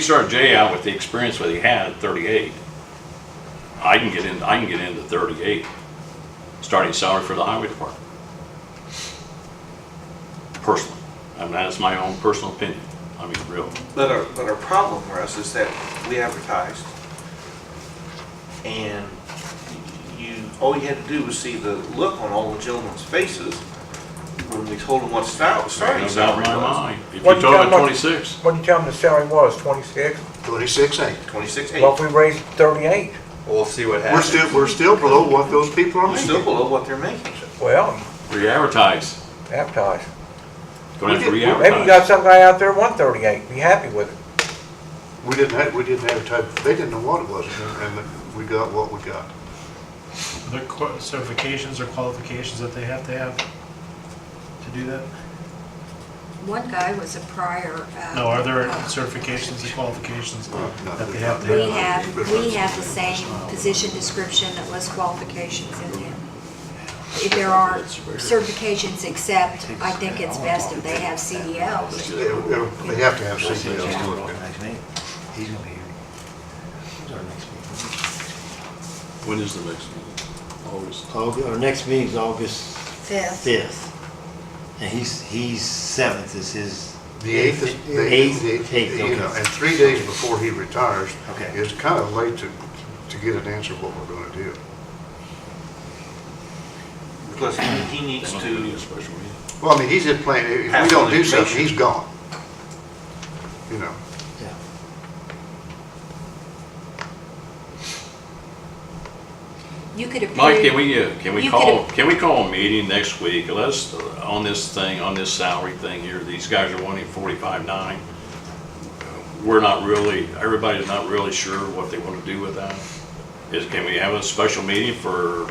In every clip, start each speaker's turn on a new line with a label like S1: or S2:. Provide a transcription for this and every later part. S1: You start Jay out with the experience that he had at thirty-eight. I can get in, I can get into thirty-eight, starting salary for the highway department. Personally, I mean, that's my own personal opinion, I mean, real.
S2: But our, but our problem, Russ, is that we advertised, and you, all you had to do was see the look on all the gentlemen's faces when we told them what style, starting
S1: No doubt in
S2: salary
S1: my
S2: was.
S1: mind, if you
S3: What you
S1: told him
S3: got,
S1: at
S3: what-
S1: twenty-six,
S3: What did you tell them the salary was, 26?
S4: Twenty-six eight.
S2: Twenty-six eight.
S3: Well, if we raised 38,
S5: We'll see what
S4: We're
S5: happens.
S4: still, we're still below what those people are
S2: We're still
S4: making.
S2: below what they're making.
S3: well,
S1: re-advertise,
S3: advertise.
S1: gonna have to
S4: We did-
S3: Maybe you
S1: re-advertise.
S3: got some guy out there 138, be happy with it.
S4: We didn't have, we didn't advertise, they didn't know what it was, and we got what we got.
S6: Their qua- certifications or qualifications that they have to have to do that?
S7: One guy was a prior. uh,
S6: No, are there
S7: uh,
S6: certifications and qualifications
S4: no,
S6: that they
S4: there's
S6: have to
S4: not.
S7: We
S6: have?
S7: have, we have the same position description that lists qualifications in there. If there are certifications except, I think it's best if they have CDLs.
S4: They they have to have something else to look at.
S5: He's gonna be here. When's our next meeting?
S1: When is the next meeting? Always.
S5: Aug- Our next meeting's August
S7: Fifth,
S5: fifth. And he's, he's seventh is his.
S4: The eighth is, the
S5: Eighth,
S4: eighth,
S5: eighth,
S4: you know,
S5: okay.
S4: and three days before he retires,
S5: Okay.
S4: it's kind of late to, to get an answer what we're gonna do.
S2: Plus, he- he needs
S1: Not gonna be
S2: to,
S1: a special meeting.
S4: Well, I mean, he's at playing, if we
S2: Have some
S4: don't do something,
S2: information.
S4: he's gone. You know,
S5: Yeah.
S7: you could approve.
S1: Mike, can we, uh, can we
S7: You
S1: call, can we call a meeting next week, let's, uh, on this thing, on this salary thing here, these guys are wanting forty-five nine. We're not really, everybody's not really sure what they wanna do with that. Is, can we have a special meeting for,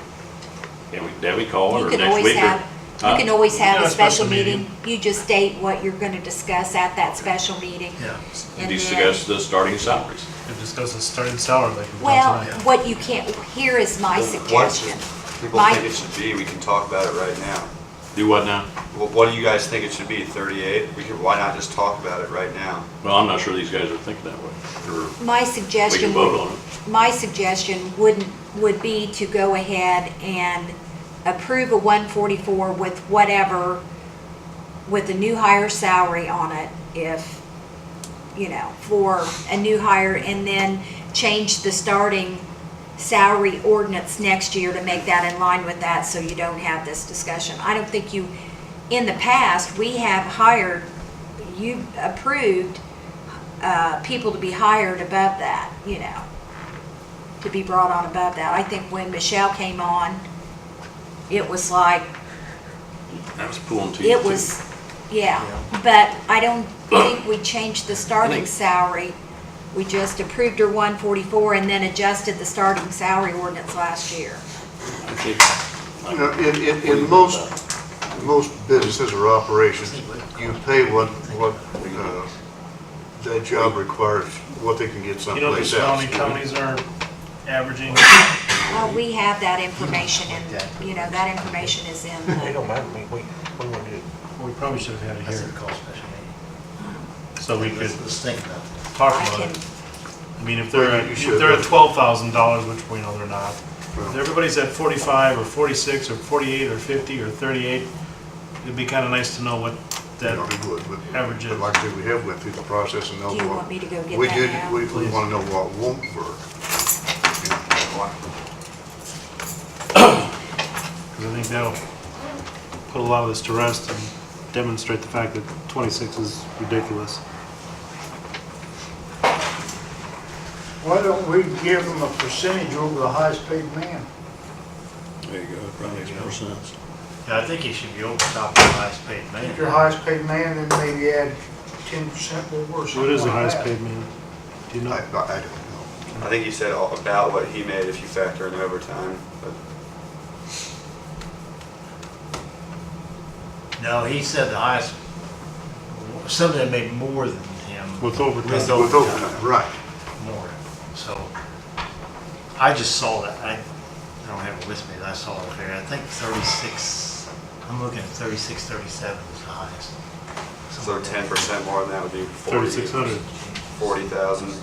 S1: can we, Debbie call it,
S7: You
S1: or
S7: can
S1: next
S7: always
S1: week? or-
S7: have,
S1: Huh?
S7: you can always have
S6: Yeah,
S7: a special meeting. You just state what you're going to discuss at that special meeting.
S6: Yeah,
S7: and then-
S1: Discuss the starting salaries.
S6: and discuss the starting salary like we've
S7: Well,
S6: done tonight.
S7: what you can't, here is my
S8: Once
S7: suggestion.
S8: people
S7: Mike?
S8: think it should be, we can talk about it right now.
S1: Do what now?
S8: Well, what do you guys think it should be, 38? We could, why not just talk about it right now?
S1: Well, I'm not sure these guys are thinking that way, or
S7: My
S1: we can
S7: suggestion would
S1: vote on it.
S7: my suggestion wouldn't, would be to go ahead and approve a 144 with whatever, with a new hire salary on it, if, you know, for a new hire, and then change the starting salary ordinance next year to make that in line with that, so you don't have this discussion. I don't think you, in the past, we have hired, you approved uh, people to be hired above that, you know, to be brought on above that. I think when Michelle came on, it was like,
S1: That was pulling teeth.
S7: it
S1: too.
S7: was, yeah. But I don't think we changed the
S1: I
S7: starting
S1: think-
S7: salary. We just approved her one forty-four and then adjusted the starting salary ordinance last year.
S1: I think-
S4: you know, in, in, in most most businesses or operations, you pay what, what, uh, that job requires, what they can get
S6: You know,
S4: someplace
S6: there's how many
S4: else.
S6: counties are averaging,
S7: Well, we have that information
S5: Yeah.
S7: and, you know, that information is in
S3: They
S7: the,
S3: don't matter, we, we, we wouldn't do it.
S6: we probably should have had it
S5: That's a
S6: here,
S5: call special meeting.
S6: so we could
S5: Let's, let's think about
S6: talk
S7: I
S6: about
S7: can,
S6: it. I mean, if they're,
S4: Well,
S6: at-
S4: you
S6: if
S4: should
S6: they're at
S4: have.
S6: twelve thousand dollars, which we know they're not, if everybody's at forty-five or forty-six or forty-eight or fifty or thirty-eight, it'd be kinda nice to know what
S4: You
S6: that
S4: know, we would, but-
S6: Average it.
S4: But like I said, we have went through the process and know
S7: do
S4: what.
S7: you want me to go get
S4: We do,
S7: that
S4: we,
S7: now?
S4: we wanna know what won't work.
S6: Because I think that'll put a lot of this to rest and demonstrate the fact that 26 is ridiculous.
S9: Why don't we give them a percentage over the highest-paid man?
S1: There you go, probably makes more sense.
S5: it. Yeah, I think he should be over top of the highest paid
S9: If you're highest-paid man, then maybe add ten percent more or
S6: What
S9: something
S6: is the
S9: like
S6: highest
S9: that.
S6: paid man? Do you
S4: I,
S6: know?
S4: I I don't know.
S8: I think you said all- about what he made if you factor in overtime, but
S5: No, he said the highest, somebody that made more than him.
S6: With overtime.
S5: With
S4: With
S5: overtime.
S4: overtime, right.
S5: more. So I just saw that. I, I don't have it with me, but I saw it there. I think 36, I'm looking at 36, 37 is the highest.
S8: so 10% more than that would be 40.
S6: 3,600.
S8: forty thousand.